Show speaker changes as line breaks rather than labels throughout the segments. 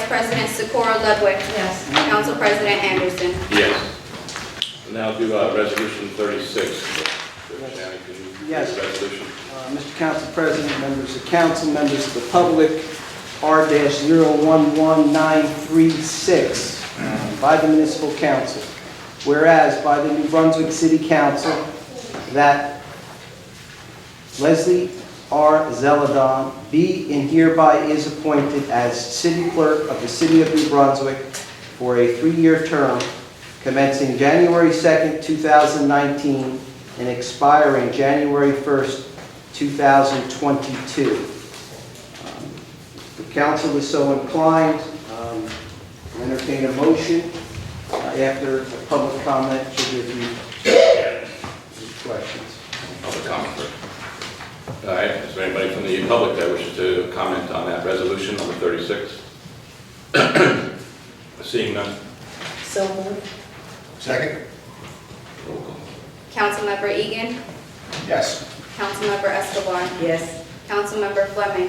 President Socorro Ludwig.
Yes.
Council President Anderson.
Yes. Now do uh, Resolution 36. Judge Downey, can you read
Yes.
the resolution?
Uh, Mr. Council President, members of council, members of the public, R-011936 um, by the municipal council. Whereas by the New Brunswick City Council that Leslie R. Zeladon be and hereby is appointed as city clerk of the city of New Brunswick for a three-year term commencing January 2nd, 2019 and expiring January 1st, 2022. Um, The council is so inclined, um, entertain a motion uh, after a public comment to give you any questions.
Public comment. first. All right, is there anybody from the public that wishes to comment on that resolution number 36? Seeing none.
So moved.
Second?
Roll call.
Councilmember Egan.
Yes.
Councilmember Escobar.
Yes.
Councilmember Fleming.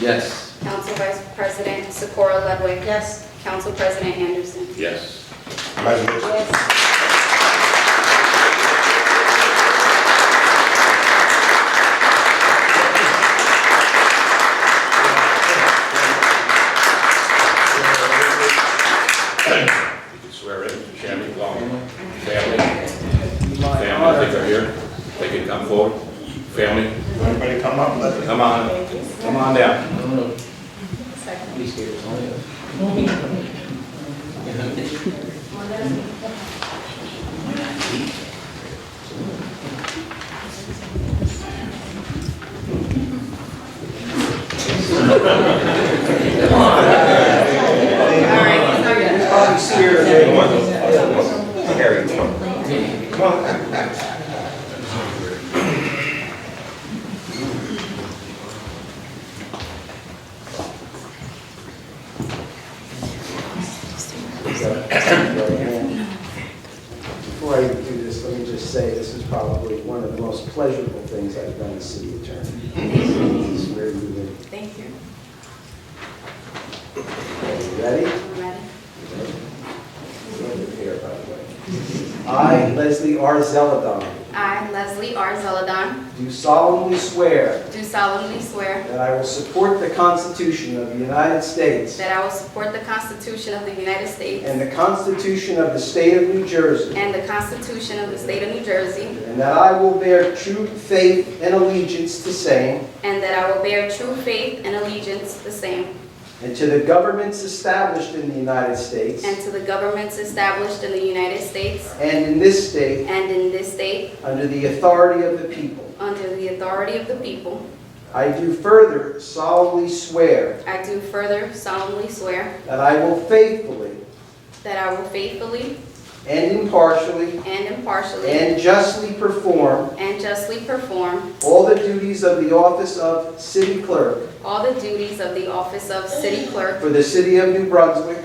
Yes.
Council Vice President Socorro Ludwig.
Yes.
Council President Anderson.
Yes.
Resolution?
Yes.
You can swear in, Shammy, Long, family, family, I think are here. They can come forward. Family,
Everybody come up, let
come on, come on down.
Please give us all. Probably see her day one.
Harry, come on. Come on.
Before I do this, let me just say, this is probably one of the most pleasurable things I've done as city attorney. It's where you live.
Thank you.
Okay, you Ready?
I'm ready.
Over here, by the way. I, Leslie R. Zeladon,
I, Leslie R. Zeladon,
do solemnly swear
do solemnly swear
that I will support the Constitution of the United States
that I will support the Constitution of the United States
and the Constitution of the State of New Jersey,
and the Constitution of the State of New Jersey,
and that I will bear true faith and allegiance to same
and that I will bear true faith and allegiance to the same,
And to the governments established in the United States
and to the governments established in the United States
and in this state,
and in this state,
under the authority of the people.
under the authority of the people.
I do further solemnly swear
I do further solemnly swear
that I will faithfully
that I will faithfully
and impartially
and impartially
and justly perform
and justly perform
all the duties of the office of city clerk
all the duties of the office of City Clerk
for the city of New Brunswick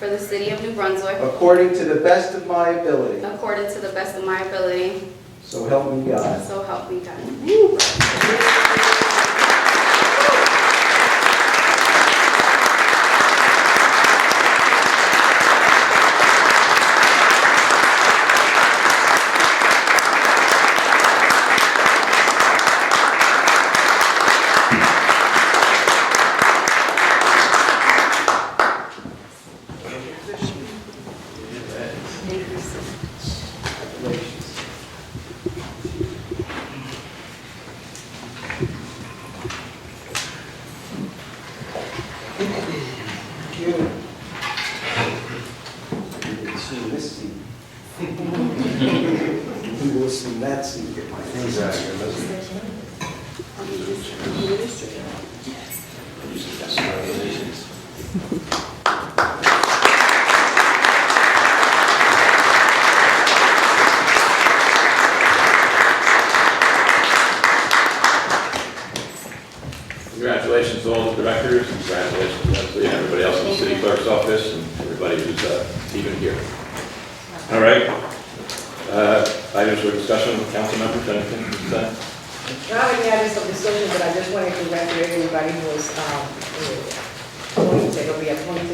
for the City of New Brunswick
according to the best of my ability.
according to the best of my ability,
So help me God.
So help me God. Thank you, sir.
Congratulations. Thank you. You will see this seat. You will see that seat.
Congratulations to all the directors, congratulations Leslie, and everybody else in the city clerk's office, and everybody who's uh, even here. All right. Uh, Items for discussion, council members, anything to say?
Not only have this decision, but I just wanted to congratulate everybody who was um, appointed, or be appointed